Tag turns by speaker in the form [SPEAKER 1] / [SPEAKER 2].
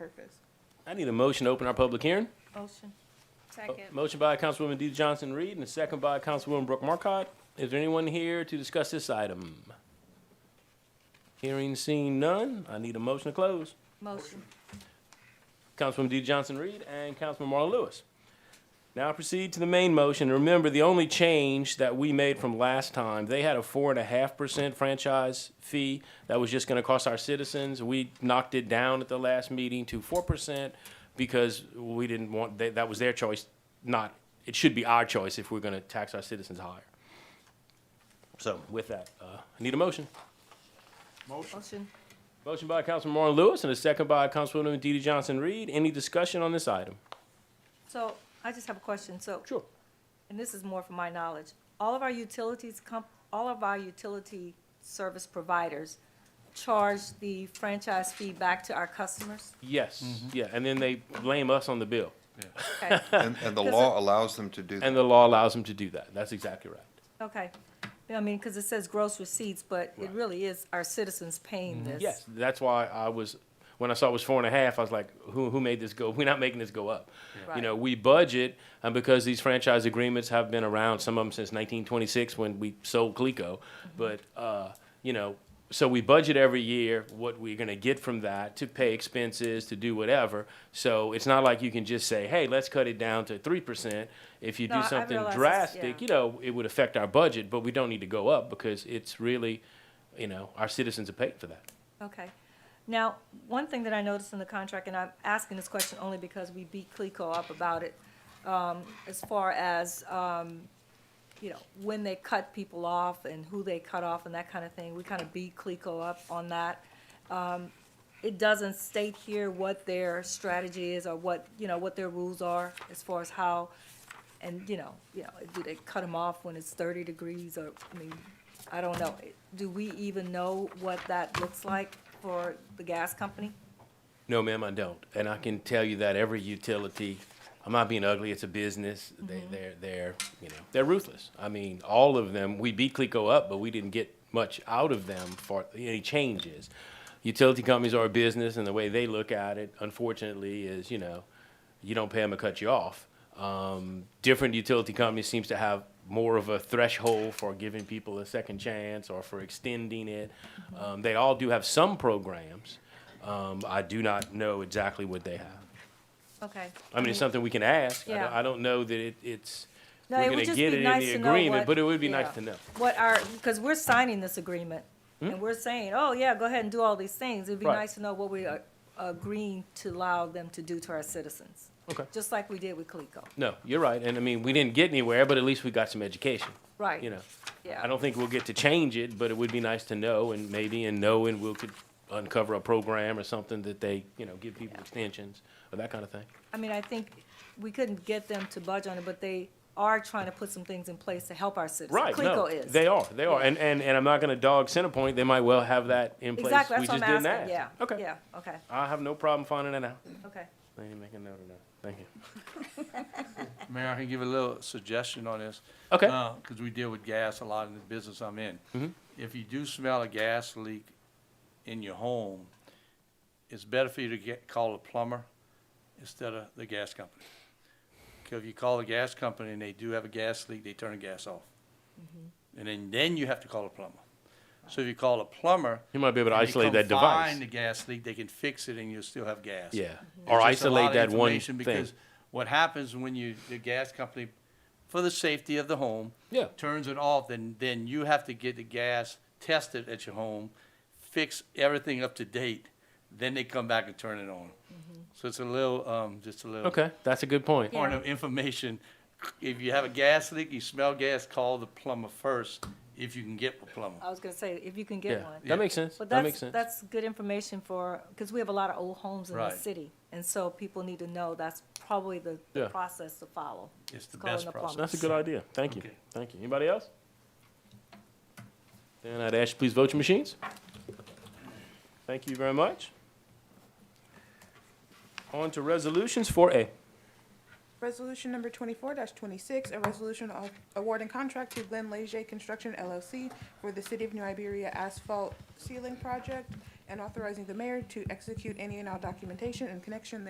[SPEAKER 1] purpose.
[SPEAKER 2] I need a motion to open our public hearing.
[SPEAKER 3] Motion.
[SPEAKER 1] Second.
[SPEAKER 2] Motion by Councilwoman Dee Johnson Reed and a second by Councilwoman Brooke Marcotte. Is there anyone here to discuss this item? Hearing seen none, I need a motion to close.
[SPEAKER 3] Motion.
[SPEAKER 2] Councilwoman Dee Johnson Reed and Councilman Marlon Lewis. Now proceed to the main motion. Remember, the only change that we made from last time, they had a four and a half percent franchise fee that was just gonna cost our citizens. We knocked it down at the last meeting to four percent because we didn't want, that, that was their choice, not, it should be our choice if we're gonna tax our citizens higher. So with that, uh, I need a motion.
[SPEAKER 3] Motion.
[SPEAKER 2] Motion by Councilman Marlon Lewis and a second by Councilwoman DeeDee Johnson-Reed. Any discussion on this item?
[SPEAKER 3] So I just have a question. So,
[SPEAKER 2] Sure.
[SPEAKER 3] and this is more from my knowledge, all of our utilities comp, all of our utility service providers charge the franchise fee back to our customers?
[SPEAKER 2] Yes, yeah, and then they blame us on the bill,
[SPEAKER 3] Okay,
[SPEAKER 4] And, and the law allows them to do that.
[SPEAKER 2] and the law allows them to do that. That's exactly right.
[SPEAKER 3] okay. I mean, because it says gross receipts, but it
[SPEAKER 2] Right. Mm-hmm.
[SPEAKER 3] really is our citizens paying this.
[SPEAKER 2] Yes, that's why I was when I saw it was four and a half. I was like, who who made this go? We're not making this go up. You know,
[SPEAKER 3] Right.
[SPEAKER 2] we budget, and because these franchise agreements have been around, some of them since 1926 when we sold Clico,
[SPEAKER 3] Mm-hmm.
[SPEAKER 2] but uh, you know. So we budget every year what we're going to get from that to pay expenses, to do whatever. So it's not like you can just say, "Hey, let's cut it down to 3%." If you
[SPEAKER 3] No,
[SPEAKER 2] do
[SPEAKER 3] I- I
[SPEAKER 2] something
[SPEAKER 3] realize it's-
[SPEAKER 2] drastic,
[SPEAKER 3] yeah.
[SPEAKER 2] you know, it would affect our budget, but we don't need to go up because it's really, you know, our citizens are paying for that.
[SPEAKER 3] Okay. Now, one thing that I noticed in the contract, and I'm asking this question only because we beat Clico up about it, um, as far as, um, you know, when they cut people off and who they cut off and that kind of thing. We kind of beat Clico up on that. Um, It doesn't state here what their strategy is or what, you know, what their rules are as far as how, and, you know, you know, do they cut them off when it's thirty degrees or, I mean, I don't know. Do we even know what that looks like for the gas company?
[SPEAKER 2] No, ma'am, I don't. And I can tell you that every utility, I'm not being ugly, it's a business. They, they're, they're, you know, they're ruthless. I mean, all of them, we beat Clico up, but we didn't get much out of them for any changes. Utility companies are a business and the way they look at it, unfortunately, is, you know, you don't pay them to cut you off. Um, different utility companies seems to have more of a threshold for giving people a second chance or for extending it. Um, they all do have some programs. Um, I do not know exactly what they have.
[SPEAKER 3] Okay.
[SPEAKER 2] I mean, it's something we can ask. I don't-
[SPEAKER 3] Yeah.
[SPEAKER 2] I don't know that it, it's,
[SPEAKER 3] No,
[SPEAKER 2] we're
[SPEAKER 3] it would
[SPEAKER 2] gonna
[SPEAKER 3] just
[SPEAKER 2] get
[SPEAKER 3] be
[SPEAKER 2] it in
[SPEAKER 3] nice
[SPEAKER 2] the
[SPEAKER 3] to know
[SPEAKER 2] agreement,
[SPEAKER 3] what-
[SPEAKER 2] but it would be nice
[SPEAKER 3] yeah.
[SPEAKER 2] to know.
[SPEAKER 3] What our, because we're signing this agreement, and we're saying, oh, yeah, go ahead and do all these things. It'd be
[SPEAKER 2] Hmm? Right.
[SPEAKER 3] nice to know what we are agreeing to allow them to do to our citizens.
[SPEAKER 2] Okay.
[SPEAKER 3] Just like we did with Clico.
[SPEAKER 2] No, you're right. And I mean, we didn't get anywhere, but at least we got some education,
[SPEAKER 3] Right.
[SPEAKER 2] you know?
[SPEAKER 3] Yeah.
[SPEAKER 2] I don't think we'll get to change it, but it would be nice to know and maybe, and know, and we'll could uncover a program or something that they, you know, give people extensions or that kind of thing.
[SPEAKER 3] I mean, I think we couldn't get them to budge on it, but they are trying to put some things in place to help our citizens.
[SPEAKER 2] Right, no,
[SPEAKER 3] Clico is.
[SPEAKER 2] they are, they are. And, and, and I'm not gonna dog Centerpoint. They might well have that in place.
[SPEAKER 3] Exactly,
[SPEAKER 2] We
[SPEAKER 3] that's what
[SPEAKER 2] just
[SPEAKER 3] I'm
[SPEAKER 2] didn't
[SPEAKER 3] asking, yeah.
[SPEAKER 2] ask. Okay.
[SPEAKER 3] Yeah, okay,
[SPEAKER 2] I have no problem finding that out.
[SPEAKER 3] okay.
[SPEAKER 2] I need to make a note of that. Thank you.
[SPEAKER 5] Mayor, I can give a little suggestion on this.
[SPEAKER 2] Okay. Mm-hmm.
[SPEAKER 5] Because we deal with gas a lot in the business I'm in. If you do smell a gas leak in your home, it's better for you to get, call a plumber instead of the gas company. Because if you call the gas company and they do have a gas leak, they turn the gas off. And then, then you have to call a plumber. So if you call a plumber.
[SPEAKER 2] You might be able to
[SPEAKER 5] and they
[SPEAKER 2] isolate
[SPEAKER 5] come
[SPEAKER 2] that device.
[SPEAKER 5] Find the gas leak, they can fix it and you'll still have gas.
[SPEAKER 2] Yeah,
[SPEAKER 5] It's
[SPEAKER 2] or
[SPEAKER 5] just a lot
[SPEAKER 2] isolate
[SPEAKER 5] of
[SPEAKER 2] that one
[SPEAKER 5] information
[SPEAKER 2] thing.
[SPEAKER 5] Because what happens when you, the gas company, for the safety of the home.
[SPEAKER 2] Yeah.
[SPEAKER 5] Turns it off, then, then you have to get the gas tested at your home, fix everything up to date, then they come back and turn it on.
[SPEAKER 3] Mm-hmm.
[SPEAKER 5] So it's a little, um, just a little.
[SPEAKER 2] Okay, that's a good point.
[SPEAKER 5] Point of information, if you have a gas leak, you smell gas, call the plumber first, if you can get a plumber.
[SPEAKER 3] I was gonna say, if you can
[SPEAKER 2] Yeah,
[SPEAKER 3] get one.
[SPEAKER 2] that makes sense.
[SPEAKER 3] But
[SPEAKER 2] That makes
[SPEAKER 3] that's,
[SPEAKER 2] sense.
[SPEAKER 3] that's good information for, because we have a lot of old homes in the
[SPEAKER 5] Right.
[SPEAKER 3] city, and so people need to know that's probably the,
[SPEAKER 2] Yeah.
[SPEAKER 3] the process to follow.
[SPEAKER 5] It's the
[SPEAKER 3] Call
[SPEAKER 5] best
[SPEAKER 3] the plumber.
[SPEAKER 5] process.
[SPEAKER 2] That's a good idea. Thank you.
[SPEAKER 5] Okay.
[SPEAKER 2] Thank you. Anybody else? Then I'd ask you please vote your machines. Thank you very much. On to resolutions four A.
[SPEAKER 1] Resolution number twenty-four twenty-six, a resolution of awarding contract to Glenn Leger Construction LLC for the City of New Iberia Asphalt Ceiling Project and authorizing the mayor to execute any and all documentation in connection